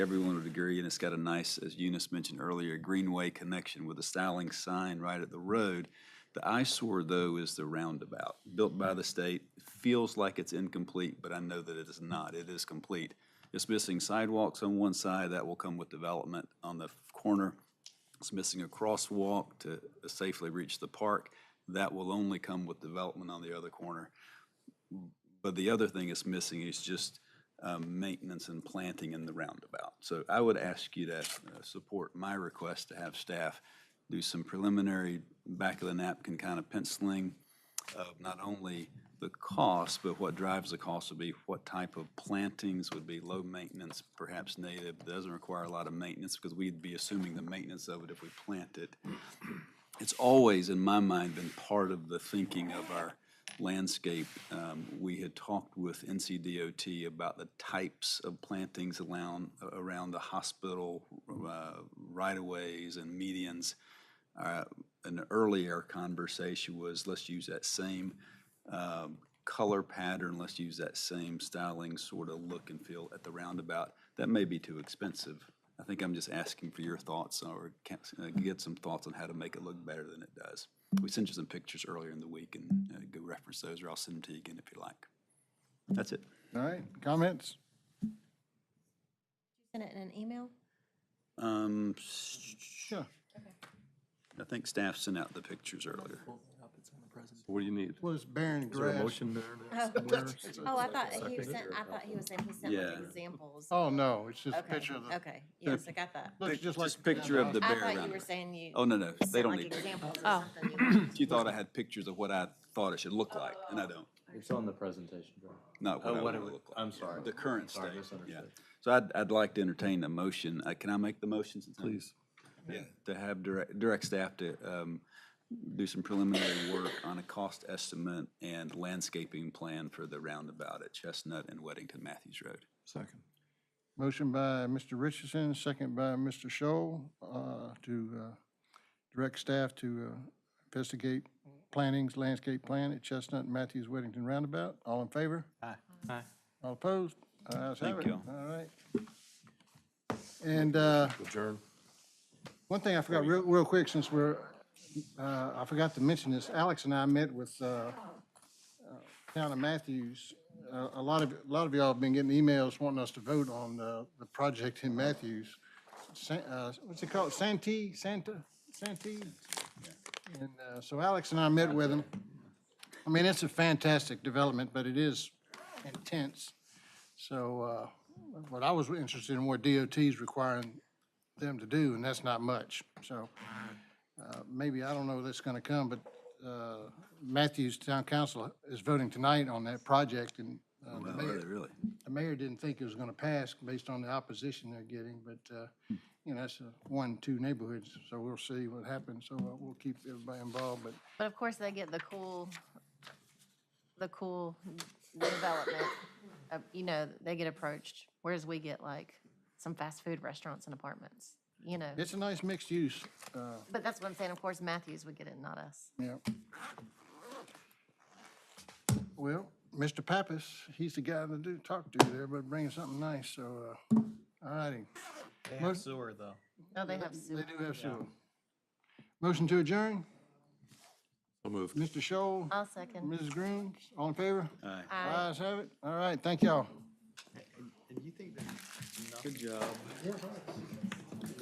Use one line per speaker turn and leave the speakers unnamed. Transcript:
Everyone would agree, and it's got a nice, as Eunice mentioned earlier, greenway connection with a styling sign right at the road. The eyesore, though, is the roundabout, built by the state. Feels like it's incomplete, but I know that it is not. It is complete. It's missing sidewalks on one side, that will come with development on the corner. It's missing a crosswalk to safely reach the park. That will only come with development on the other corner. But the other thing it's missing is just um, maintenance and planting in the roundabout. So I would ask you to uh, support my request to have staff do some preliminary back of the napkin kind of penciling of not only the cost, but what drives the cost would be what type of plantings would be low maintenance, perhaps native, doesn't require a lot of maintenance because we'd be assuming the maintenance of it if we plant it it's always, in my mind, been part of the thinking of our landscape. Um, We had talked with NCDOT about the types of plantings around, around the hospital, uh, right-of-ways and medians. Uh, An earlier conversation was, let's use that same um, color pattern, let's use that same styling sort of look and feel at the roundabout. That may be too expensive. I think I'm just asking for your thoughts or can- uh, get some thoughts on how to make it look better than it does. We sent you some pictures earlier in the week and uh, go reference those, or I'll send them to you again if you like. That's it.
All right, comments?
Send it in an email?
Um, s-
Sure.
I think staff sent out the pictures earlier.
What do you need?
Was Baron
Is there a
Grass?
motion there?
Oh,
somewhere?
oh, I thought he was
Second.
sent, I thought he was saying he sent like
Yeah.
examples.
Oh, no, it's just a
Okay,
picture of the,
okay, yes, I got that.
looks just like.
Just picture of the
I
bear
thought you were
roundabout.
saying you.
Oh, no, no, they
sent,
don't
like,
need pictures.
Examples or something.
You thought I had pictures of what I thought it should look like, and I don't.
It's on the presentation, John.
Not what
Oh,
I
what
want
it
to
would-
look like.
I'm sorry.
The current
Sorry,
state, yeah.
misunderstood.
So I'd, I'd like to entertain a motion. Uh, Can I make the motion? since I'm-
Please.
Yeah, to have direct, direct staff to um, do some preliminary work on a cost estimate and landscaping plan for the roundabout at Chestnut and Weddington Matthews Road.
Second.
Motion by Mr. Richardson, second by Mr. Shoal, uh, to, uh, direct staff to, uh, investigate plantings, landscape plan at Chestnut and Matthews Weddington Roundabout. All in favor? Aye.
Aye.
All opposed? Ayes have
Thank
it.
you.
All right. And, uh,
Adjourn.
One thing I forgot real, real quick, since we're, uh, I forgot to mention this, Alex and I met with, uh, uh, Town of Matthews. Uh, a lot of, a lot of y'all have been getting emails wanting us to vote on, uh, the project in Matthews. Sa- uh, what's it called? Santee, Santa, Santee? And, uh, so Alex and I met with him. I mean, it's a fantastic development, but it is intense. So, uh, what I was interested in were DOT's requiring them to do, and that's not much. So uh, maybe, I don't know that's going to come, but uh, Matthews Town Council is voting tonight on that project, and uh, the
Wow,
mayor,
Really?
the mayor didn't think it was going to pass based on the opposition they're getting, but, uh, you know, that's a one, two neighborhoods, so we'll see what happens. So uh, we'll keep everybody involved, but
But of course, they get the cool, the cool development, of- you know, they get approached, whereas we get like some fast food restaurants and apartments, you know.
it's a nice mixed use, uh,
But that's what I'm saying, of course, Matthews would get it, not us.
yeah. Well, Mr. Pappas, he's the guy to do, talk to there, but bringing something nice, so, uh, all righty.
They
Mo-
have sewer, though.
No, they have
They
soup.
do have sewer. Motion to adjourn,
So moved.
Mr. Shoal,
I'll second.
Mrs. Grooms, all in favor?
Aye.
Aye.
Ayes have it. All right, thank y'all.
And you think that? Good job.